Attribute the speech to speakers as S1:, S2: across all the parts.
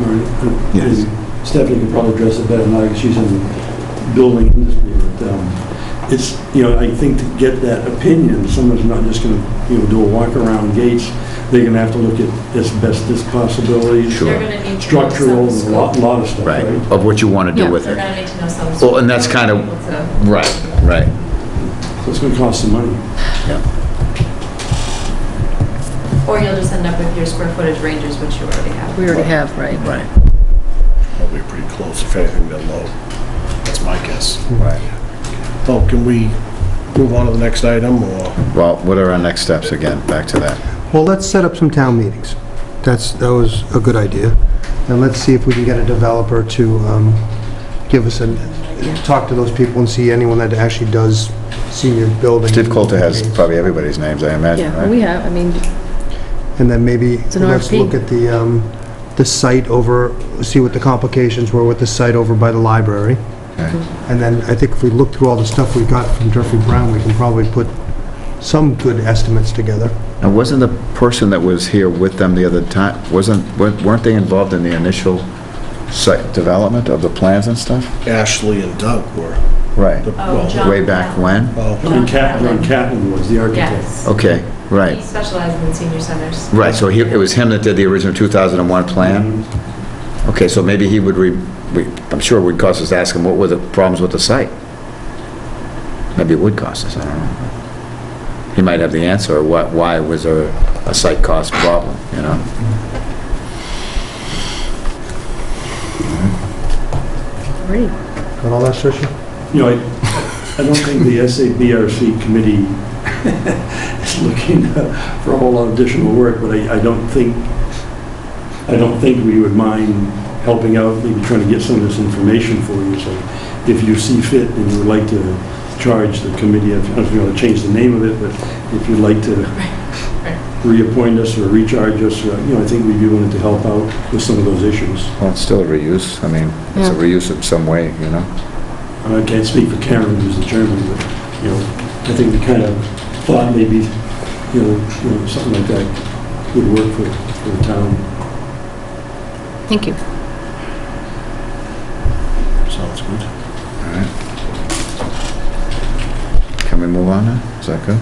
S1: Or, uh,
S2: Yes.
S1: Stephanie could probably address it better than I, because she's in the building industry, but um, it's, you know, I think to get that opinion, someone's not just going to, you know, do a walk-around gates, they're going to have to look at asbestos possibilities,
S2: Sure.
S3: They're going to need to know
S1: structural,
S3: some
S1: a lot,
S3: scope.
S1: lot of stuff,
S2: right,
S1: right?
S2: of what you want to
S4: Yeah.
S2: do with
S3: They're
S2: it.
S3: going to need to know some.
S2: Well, and that's kind of-
S3: scope to-
S2: Right, right.
S1: So it's going to cost some money.
S3: Or you'll just end up with your square footage ranges, which you already have.
S4: We already have, right?
S2: Right.
S5: Well, we're pretty close, if anything, they're low. That's my guess.
S2: Right.
S5: So can we move on to the next item, or?
S2: Well, what are our next steps again? Back to that.
S6: Well, let's set up some town meetings. That's, that was a good idea. And let's see if we can get a developer to um, give us a, talk to those people and see anyone that actually does senior building.
S2: Steve Coulter has probably everybody's names, I imagine,
S4: Yeah,
S2: right?
S4: we have, I mean,
S6: And then maybe
S4: an
S6: let's
S4: RFP.
S6: look at the, um, the site over, see what the complications were with the site over by the library.
S2: Okay.
S6: And then I think if we look through all the stuff we got from Jeffrey Brown, we can probably put some good estimates together.
S2: Now, wasn't the person that was here with them the other time, wasn't, wa- weren't they involved in the initial site development of the plans and stuff?
S5: Ashley and Doug were,
S2: Right.
S5: the-
S3: Oh,
S5: well,
S3: John.
S2: Way back when?
S5: well,
S1: And Cat- John Catlin was the architect.
S3: Yes.
S2: Okay, right.
S3: He specializes in senior centers.
S2: Right, so he, it was him that did the original 2001 plan? Okay, so maybe he would, re. we- I'm sure it would cost us to ask him what were the problems with the site? Maybe it would cost us, I don't know. He might have the answer, or what, why was there a site cost problem, you know?
S4: great.
S6: Got all that, Tricia?
S1: You know, I, I don't think the SABRC committee is looking uh, for a whole lot of additional work, but I, I don't think, I don't think we would mind helping out, maybe trying to get some of this information for you, so if you see fit and you would like to charge the committee, I don't know if you want to change the name of it, but if you'd like to reappoint us or recharge us, uh, you know, I think we'd be willing to help out with some of those issues.
S2: Well, it's still a reuse, I mean, it's a
S4: Yeah.
S2: reuse in some way, you know?
S1: And I can't speak for Karen, who's the chairman, but, you know, I think we kind of thought maybe, you know, you know, something like that would work for, for the town.
S4: Thank you.
S5: sounds good.
S2: All right. Can we move on now? Is that good?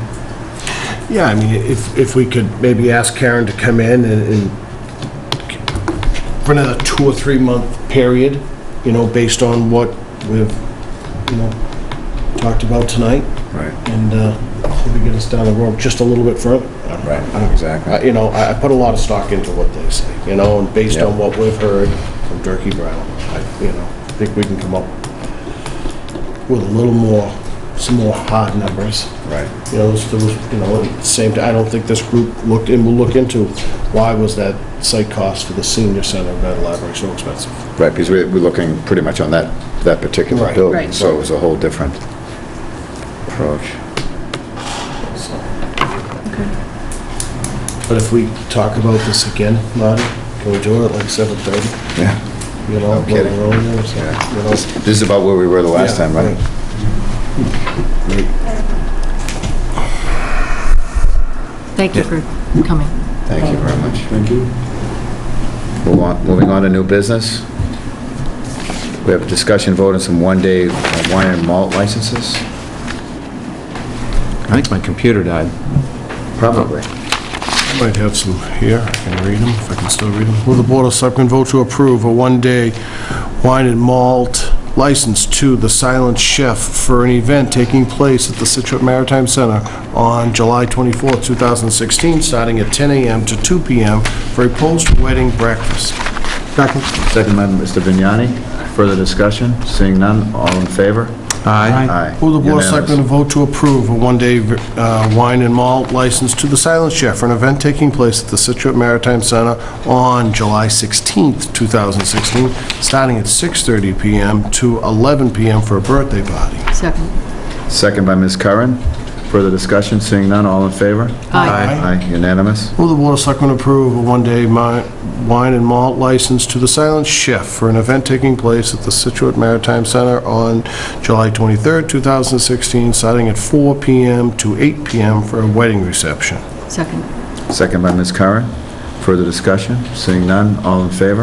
S5: Yeah, I mean, if, if we could maybe ask Karen to come in and, and for another two or three month period, you know, based on what we've, you know, talked about tonight,
S2: Right,
S5: and, uh, maybe get us down the road just a little bit further.
S2: right,
S5: Uh,
S2: Oh, exactly.
S5: You know, I, I put a lot of stock into what they say, you know, and based
S2: Yeah.
S5: on what we've heard from Durkey Brown, I, you know, I think we can come up with a little more, some more hard numbers.
S2: Right,
S5: You know, there was, you know, at the same, time, I don't think this group looked, and will look into, why was that site cost for the senior center of that library so expensive?
S2: right, because we're, we're looking pretty much on that, that particular
S5: Right.
S2: building,
S4: Right.
S2: so it was a whole different approach.
S5: so. But if we talk about this again, Marty, can we do it at like 7:30?
S2: Yeah.
S5: You know,
S2: No kidding.
S5: when we're on there, so,
S2: Yeah.
S5: you know?
S2: This this is about where we were the last
S5: Yeah,
S2: time, right?
S4: Thank you for coming.
S2: Thank you very much.
S1: Thank you.
S2: Move on- Moving on to new business. We have a discussion vote on some one-day uh, wine and malt licenses.
S7: I think my computer died.
S2: Probably.
S5: Might have some here, I can read them, if I can still read them. Will the Board of Selectmen vote to approve a one-day wine and malt license to the Silent Chef for an event taking place at the Situate Maritime Center on July 24, 2016, starting at 10 a.m. to 2 p.m. for a post-wedding breakfast?
S6: Second?
S2: Second by Mr. Vignani. Further discussion? Seeing none, all in favor? Aye.
S5: Will the Board of Selectmen
S2: Unanimous.
S5: vote to approve a one-day uh, wine and malt license to the Silent Chef for an event taking place at the Situate Maritime Center on July 16th, 2016, starting at 6:30 PM to 11 PM for a birthday party?
S4: Second.
S2: Second by Ms. Curran. Further discussion? Seeing none, all in favor?
S4: Aye.
S2: Aye, unanimous.
S5: Will the Board of Selectmen approve a one-day mi- wine and malt license to the Silent Chef for an event taking place at the Situate Maritime Center on July 23rd, 2016, starting at 4 PM to 8 PM for a wedding reception?
S4: Second.
S2: Second by Ms. Curran. Further discussion? Seeing none, all in favor?